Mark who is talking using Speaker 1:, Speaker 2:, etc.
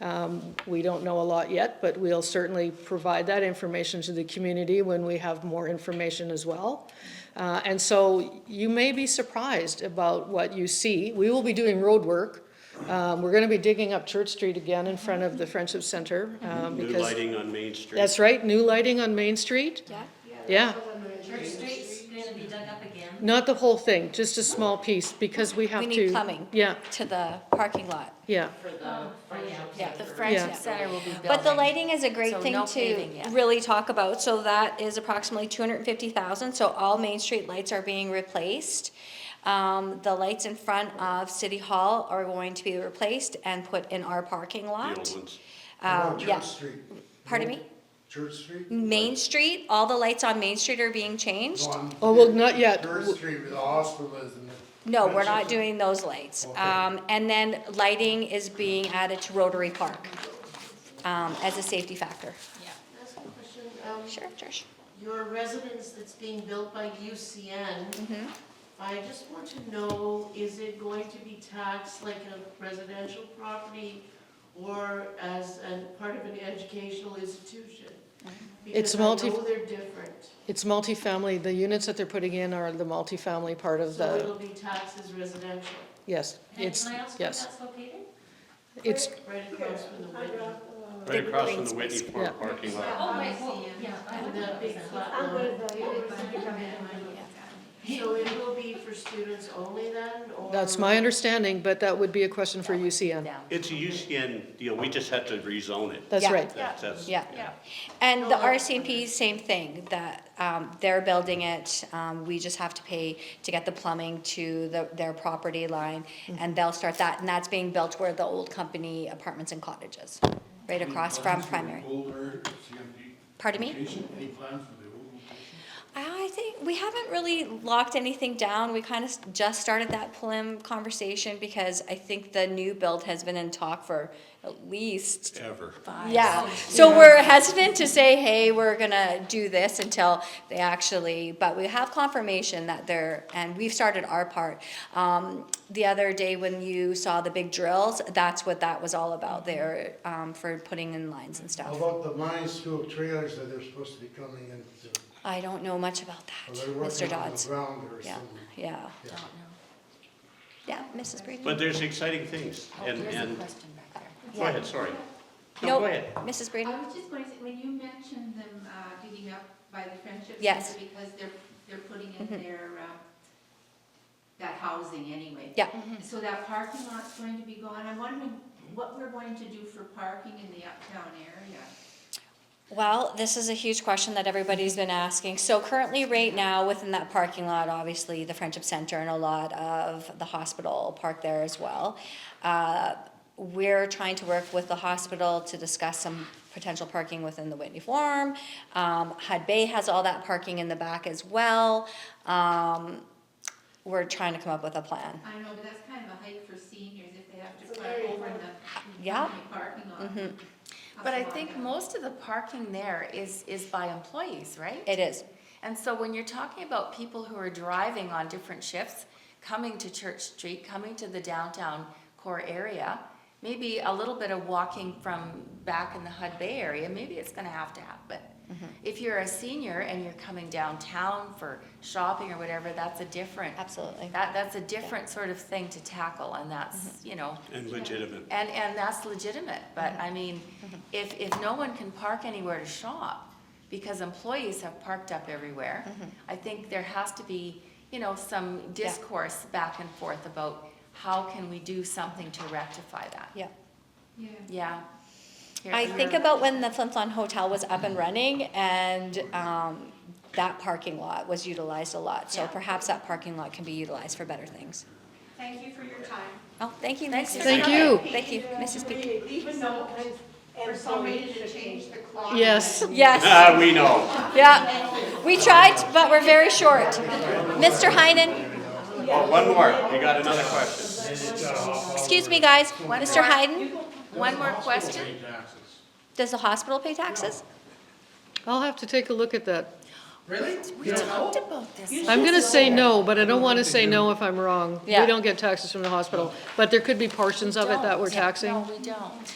Speaker 1: Um, We don't know a lot yet, but we'll certainly provide that information to the community when we have more information as well. Uh, And so you may be surprised about what you see. We will be doing road work. Um, We're going to be digging up Church Street again in front of the Friendship Center. um,
Speaker 2: New
Speaker 1: because-
Speaker 2: lighting on Main Street.
Speaker 1: That's right, new lighting on Main Street.
Speaker 3: Yeah.
Speaker 1: Yeah,
Speaker 4: Church Street's gonna be dug up again.
Speaker 1: not the whole thing, just a small piece, because we have
Speaker 3: We
Speaker 1: to.
Speaker 3: need plumbing.
Speaker 1: Yeah,
Speaker 3: To the parking lot.
Speaker 1: yeah.
Speaker 4: Oh,
Speaker 3: Yeah,
Speaker 1: Yeah.
Speaker 3: the friendship
Speaker 4: Center will be building.
Speaker 3: But the lighting is a great
Speaker 4: So
Speaker 3: thing
Speaker 4: no
Speaker 3: to
Speaker 4: paving yet.
Speaker 3: really talk about, so that is approximately two hundred and fifty thousand, so all Main Street lights are being replaced. Um, the lights in front of City Hall are going to be replaced and put in our parking
Speaker 2: The
Speaker 3: lot.
Speaker 2: old ones.
Speaker 3: Uh,
Speaker 5: Church
Speaker 3: yeah.
Speaker 5: Street.
Speaker 3: Pardon me?
Speaker 5: Church Street?
Speaker 3: Main Street, all the lights on Main Street are being changed?
Speaker 5: No, I'm-
Speaker 1: Oh, well, not yet.
Speaker 5: Church Street with the hospital is in the.
Speaker 3: No, we're not doing those lights. Um, and then lighting is being added to Rotary Park, um, as a safety factor.
Speaker 6: Ask a question. Um,
Speaker 3: Sure, Trish.
Speaker 6: Your residence that's being built by UCN, I just want to know, is it going to be taxed like a residential property or as a part of an educational institution?
Speaker 1: It's multi-
Speaker 6: Because I know they're different,
Speaker 1: It's multifamily, the units that they're putting in are the multifamily part of
Speaker 6: so
Speaker 1: the,
Speaker 6: it'll be taxed as residential,
Speaker 1: yes,
Speaker 4: And
Speaker 1: it's,
Speaker 4: can I ask where
Speaker 1: yes.
Speaker 4: that's located?
Speaker 1: It's,
Speaker 6: right across from the window.
Speaker 2: Right
Speaker 3: The
Speaker 2: across
Speaker 3: green
Speaker 2: from the Whitney
Speaker 3: space.
Speaker 2: Farm
Speaker 1: Yeah.
Speaker 2: parking lot.
Speaker 4: Oh, right, well, yeah. I
Speaker 6: And
Speaker 4: don't know.
Speaker 6: that big flat line. So it will be for students only then, or?
Speaker 1: that's my understanding, but that would be a question for UCN.
Speaker 2: It's a UCN deal, we just had to rezone it.
Speaker 1: That's
Speaker 3: Yeah.
Speaker 1: right.
Speaker 2: That's, that's.
Speaker 3: Yeah. And the RCMP, same thing, that, um, they're building it, um, we just have to pay to get the plumbing to the, their property line, and they'll start that, and that's being built where the old company apartments and cottages, right across from primary.
Speaker 5: Older CMP.
Speaker 3: Pardon me?
Speaker 5: location? Any plans for the old location?
Speaker 3: Uh, I think we haven't really locked anything down. We kind of just started that prelim conversation because I think the new build has been in talk for at least.
Speaker 2: Ever.
Speaker 3: Yeah, so we're hesitant to say, hey, we're gonna do this until they actually, but we have confirmation that they're, and we've started our part. Um, the other day when you saw the big drills, that's what that was all about there, um, for putting in lines and
Speaker 5: How
Speaker 3: stuff.
Speaker 5: about the mine school trailers that they're supposed to be coming in soon?
Speaker 3: I don't know much about that,
Speaker 5: Are they
Speaker 3: Mr.
Speaker 5: working on the
Speaker 3: Dodds.
Speaker 5: ground or
Speaker 3: Yeah,
Speaker 5: something?
Speaker 3: yeah.
Speaker 5: Yeah.
Speaker 3: Yeah, Mrs. Brady?
Speaker 2: But there's exciting things, and, and,
Speaker 4: Oh, question back there.
Speaker 2: go ahead, sorry. No,
Speaker 3: Nope.
Speaker 2: go ahead.
Speaker 3: Mrs. Brady?
Speaker 7: I was just going to say, when you mentioned them uh, digging up by the Friendship
Speaker 3: Yes.
Speaker 7: Center, because they're, they're putting in their, um, that housing anyway. Mm-hmm.
Speaker 3: Yeah.
Speaker 7: So that parking lot's going to be gone. I'm wondering what we're going to do for parking in the uptown area.
Speaker 3: Well, this is a huge question that everybody's been asking. So currently, right now, within that parking lot, obviously, the Friendship Center and a lot of the hospital park there as well. Uh, We're trying to work with the hospital to discuss some potential parking within the Whitney Forum. Um, Hud Bay has all that parking in the back as well. Um, We're trying to come up with a plan.
Speaker 7: I know, but that's kind of a hike for seniors if they have to park over in the
Speaker 3: Yeah.
Speaker 7: in the parking lot.
Speaker 4: But I think most of the parking there is, is by employees, right?
Speaker 3: It is.
Speaker 4: And so when you're talking about people who are driving on different shifts, coming to Church Street, coming to the downtown core area, maybe a little bit of walking from back in the Hud Bay area, maybe it's gonna have to happen. If you're a senior and you're coming downtown for shopping or whatever, that's a different,
Speaker 3: Absolutely.
Speaker 4: that, that's a different sort of thing to tackle and that's, you know,
Speaker 2: And legitimate.
Speaker 4: and, and that's legitimate, but
Speaker 3: Mm-hmm.
Speaker 4: I mean, if, if no one can park anywhere to shop, because employees have parked up everywhere,
Speaker 3: Mm-hmm.
Speaker 4: I think there has to be, you know, some discourse back and forth about how can we do something to rectify that?
Speaker 3: Yeah.
Speaker 7: Yeah.
Speaker 4: Yeah. Here-
Speaker 3: I think
Speaker 4: here-
Speaker 3: about when the Flin Flon Hotel was up and running and um, that parking lot was utilized a lot. So
Speaker 4: Yeah.
Speaker 3: perhaps that parking lot can be utilized for better things.
Speaker 8: Thank you for your time.
Speaker 3: Oh, thank you, Mrs.
Speaker 4: for
Speaker 1: Thank
Speaker 3: Peak.
Speaker 1: you.
Speaker 3: Thank you, Mrs. Peak.
Speaker 8: Even though,
Speaker 6: For somebody to change the clock.
Speaker 1: Yes.
Speaker 3: Yes,
Speaker 2: Ah, we know.
Speaker 3: yeah. We tried, but we're very short. Mr. Heinen,
Speaker 2: Oh, one more, you got another question.
Speaker 3: excuse me, guys. Mr. Heinen,
Speaker 4: One more question?
Speaker 3: does the hospital pay taxes?
Speaker 1: I'll have to take a look at that.
Speaker 4: We talked about this.
Speaker 1: I'm gonna say no, but I don't wanna say no if I'm wrong. We
Speaker 3: Yeah.
Speaker 1: don't get taxes from the hospital, but there could be portions of it that we're
Speaker 4: Don't.
Speaker 1: taxing.
Speaker 4: No, we don't.